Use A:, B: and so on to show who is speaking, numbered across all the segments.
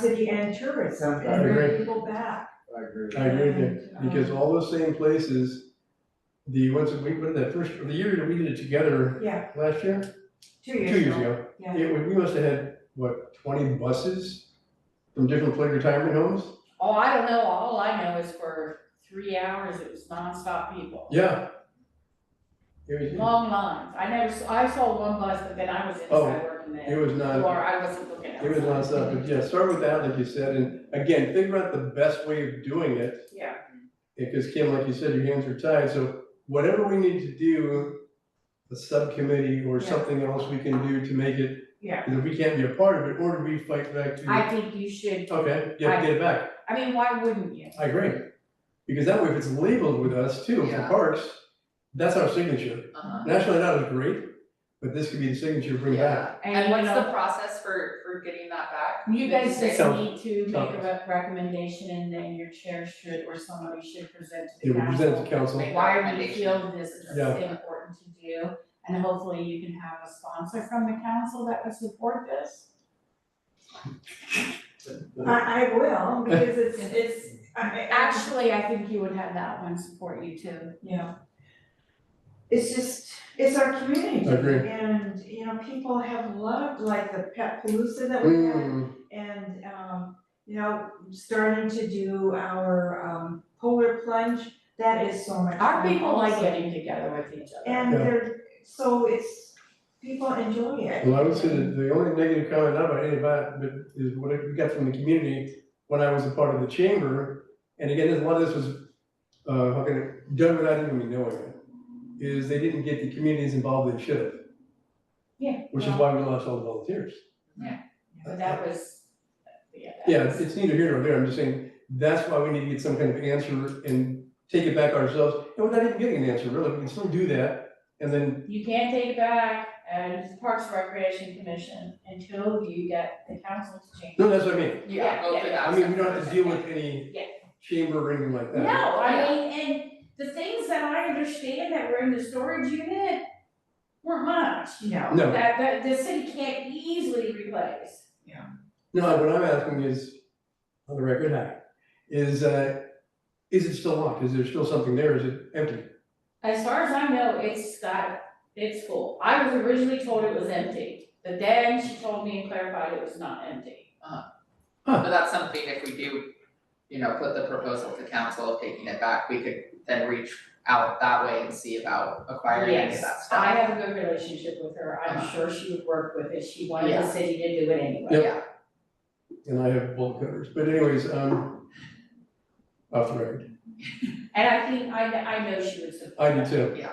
A: City and tourism,
B: I
A: and bring
B: agree.
A: people back.
B: I agree. with
C: I agree with you,
A: And, um,
C: because all those same places, the ones that we, when that first, the year that we did it together
A: Yeah,
C: last year,
A: two
C: two
A: years ago.
C: years ago,
A: Yeah,
C: it, was- we must have had, what, twenty buses from different play retirement homes?
D: Oh, I don't know, all I know is for three hours, it was nonstop people.
C: Yeah. It was,
D: Long lines, I never, s- I saw one bus, but then I was
C: Oh,
D: inside working
C: it
D: there,
C: was not,
D: or I wasn't looking outside.
C: it was not stuff, but yeah, start with that, like you said, and again, figure out the best way of doing it.
D: Yeah,
C: Because Kim, like you said, your hands are tied, so whatever we need to do, a subcommittee or
A: Yeah.
C: something else we can do to make it.
A: Yeah.
C: Because if we can't be a part of it, or do we fight back to,
D: I think you should,
C: okay, yeah, get it back,
D: I mean, why wouldn't you?
C: I agree. Because that way, if it's labeled with us too, for
E: Yeah.
C: parks, that's our signature.
E: Uh-huh.
C: National Night Out is great, but this could be the signature, bring back.
E: Yeah, and
D: you
E: what's
D: know-
E: the process for, for getting that back?
D: You guys just
C: So-
D: need to make
C: so-
D: a rec- recommendation and then your chair should, or somebody should present to
C: It
D: the
C: would present to
D: council.
C: council,
E: Make
D: Why we
E: recommendation.
D: feel this is
C: Yeah.
D: important to do, and hopefully you can have a sponsor from the council that would support this.
A: I, I will, because it's, it's, I, I-
D: Actually, I think you would have that one support you too.
A: Yeah. It's just, it's our community.
C: I agree.
A: And, you know, people have loved like the pet palooza that we had
C: Mm,
A: and, um, you know, starting to do our, um, polar plunge. That is so much
D: Our
A: fun
D: people like
A: also.
D: getting together with each other.
A: And
C: Yeah.
A: they're, so it's, people enjoy it.
C: well, I would say that the only negative comment about any of that, but is what we got from the community when I was a part of the chamber. And again, a lot of this was, uh, how can I- done without even me knowing it, is they didn't get the communities involved they should have.
D: Yeah,
C: Which is why
D: well-
C: we lost all the volunteers.
D: But that was, yeah. that
C: Yeah,
D: was-
C: it's neither here nor there, I'm just saying, that's why we need to get some kind of answer and take it back ourselves, and we're not even getting an answer, really, we can still do that, and then,
D: You can't take it back, and it's the Parks and Recreation Commission until you get the council to change.
C: no, that's what I mean.
D: Yeah,
E: Go
D: yeah,
E: through
D: yeah.
E: that
C: I mean, we don't
E: step.
C: have to deal with any
D: Yeah.
C: chamber or anything like that.
D: No, I mean, and the things that I understand that were in the storage unit weren't much, you know?
C: No.
D: That, that, the city can't easily replace.
C: No, what I'm asking is, on the record, hi, is, uh, is it still locked, is there still something there, is it empty?
D: As far as I know, it's got, it's full. I was originally told it was empty, but then she told me and clarified it was not empty.
E: But that's something if we do, you know, put the proposal to council of taking it back, we could then reach out that way and see about acquiring any of that
D: Yes, I
E: stuff.
D: have a good relationship with her. I'm
E: Uh-huh.
D: sure she would work with it. She wanted
E: Yeah.
D: the city to do it anyway.
E: Yep.
C: And I have bullet covers, but anyways, um, off the record,
D: And I think, I, I know she would
C: I
D: support
C: do
D: it.
C: too,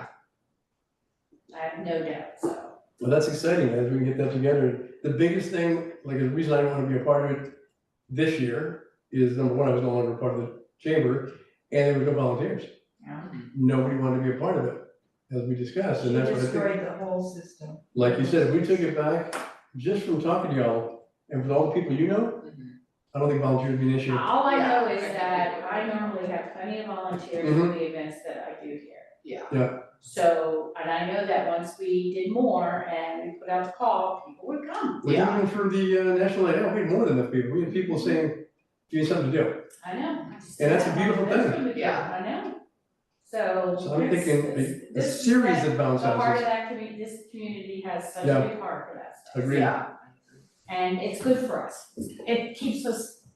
D: I have no doubt, so.
C: Well, that's exciting, as we can get that together. The biggest thing, like the reason I want to be a part of it this year is number one, I was no longer part of the chamber and there were no volunteers.
A: Yeah.
E: Mm-hmm.
C: Nobody wanted to be a part of it, as we discussed,
A: She
C: and that's what I think.
A: destroyed the whole system.
C: Like you said, if we took it back just from talking to y'all and with all the people you know,
E: Mhm.
C: I don't think volunteers would be an issue.
D: All I know
E: Yeah,
D: is
E: I think
D: that
E: we-
D: I normally have plenty of volunteers for the events that I do here.
E: Yeah.
C: Mm-hmm. Yeah.
D: So, and I know that once we did more and we put out the call, people would come.
C: Like
E: Yeah.
C: even for the uh, National Night Out, we had more than enough people. We had people saying, give me something to do.
D: I know.
C: And that's a beautiful thing.
E: Yeah.
D: I know. So.
C: So I'm
D: this-
C: thinking
D: this-
C: a- a
D: this is
C: series
D: that-
C: of bounce
D: The heart
C: houses.
D: of that community, this community has such
C: Yeah.
D: a big heart for that stuff.
C: Agreed.
E: Yeah.
D: And it's good for us. It keeps us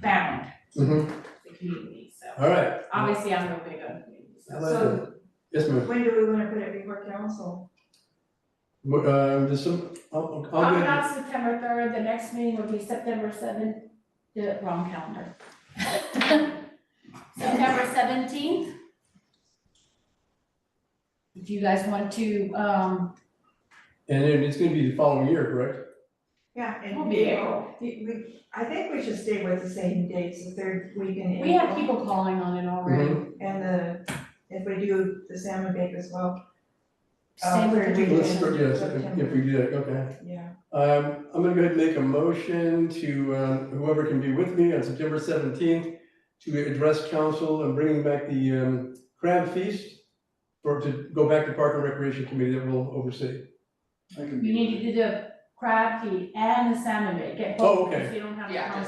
D: bound,
C: Mhm.
D: the community, so.
C: All right.
D: Obviously, I'm no big on communities.
C: I
D: Um, so.
C: like
A: So-
C: that. Yes, ma'am.
A: When do we wanna put it before council?
C: Wh- Uh, there's some, I'll, I'll.
D: Probably not September third, the next meeting would be September seventh, the wrong calendar. September seventeenth. If you guys want to, um,
C: And then it's gonna be the following year, correct?
A: Yeah, in
D: We'll be
A: April. We- we- I think we should stay with the same dates, the third weekend in
D: we have
A: April.
D: people calling on it already.
A: And the, if we do the salmon bake as well, Uh,
D: Same with
A: third
D: Um, the
A: weekend.
C: Let's
A: Yeah.
C: start,
D: weekend.
C: yes, if if we do that, okay.
A: yeah.
C: Um, I'm gonna go ahead and make a motion to, um, whoever can be with me on September seventeenth to address council and bringing back the, um, crab feast for, to go back to Park and Recreation Committee that will oversee.
B: you. I can
D: You
B: be-
D: need to do the crab feed and the salmon bake, get
C: Oh,
D: both,
C: okay.
D: because you don't have have
F: Yeah,
D: to come